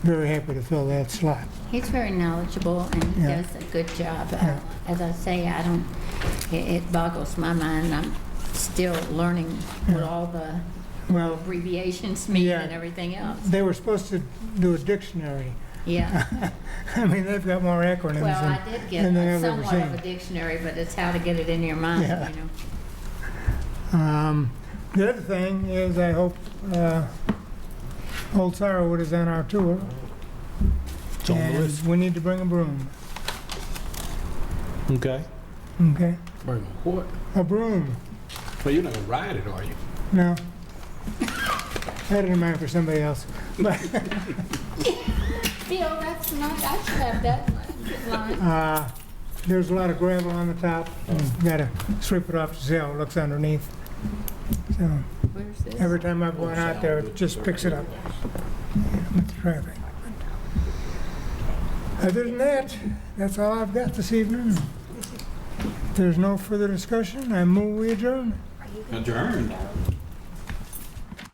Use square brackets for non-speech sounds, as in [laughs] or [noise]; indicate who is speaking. Speaker 1: very happy to fill that slot.
Speaker 2: He's very knowledgeable and he
Speaker 1: Yeah.
Speaker 2: does a good job.
Speaker 1: Yeah.
Speaker 2: As I say, I don't, it it boggles my mind. I'm still learning what all the
Speaker 1: Well,
Speaker 2: abbreviations mean
Speaker 1: Yeah.
Speaker 2: and everything else.
Speaker 1: they were supposed to do a dictionary. [laughs]
Speaker 2: Yeah.
Speaker 1: I mean, they've got more acronyms than...
Speaker 2: Well, I did
Speaker 1: than they
Speaker 2: get
Speaker 1: ever
Speaker 2: somewhat of a
Speaker 1: seen.
Speaker 2: dictionary, but it's how to get it in your mind,
Speaker 1: Yeah.
Speaker 2: you know?
Speaker 1: Um, The other thing is, I hope uh, Old Sorrowwood is on our tour.
Speaker 3: It's on the list.
Speaker 1: And we need to bring a broom,
Speaker 3: Okay.
Speaker 1: okay?
Speaker 4: Bring what?
Speaker 1: A broom,
Speaker 4: Well, you're not gonna ride it, are you?
Speaker 1: no. That didn't matter for somebody else. But
Speaker 2: Bill, that's not, I should have that line.
Speaker 1: uh, there's a lot of gravel on the top.
Speaker 3: Mm.
Speaker 1: You Gotta sweep it off to see how it looks underneath. So
Speaker 2: Where's this?
Speaker 1: every time I've gone out there, it just picks it up with the traffic. Other than that, that's all I've got this evening. If there's no further discussion, I move we adjourn.
Speaker 4: Adjourned.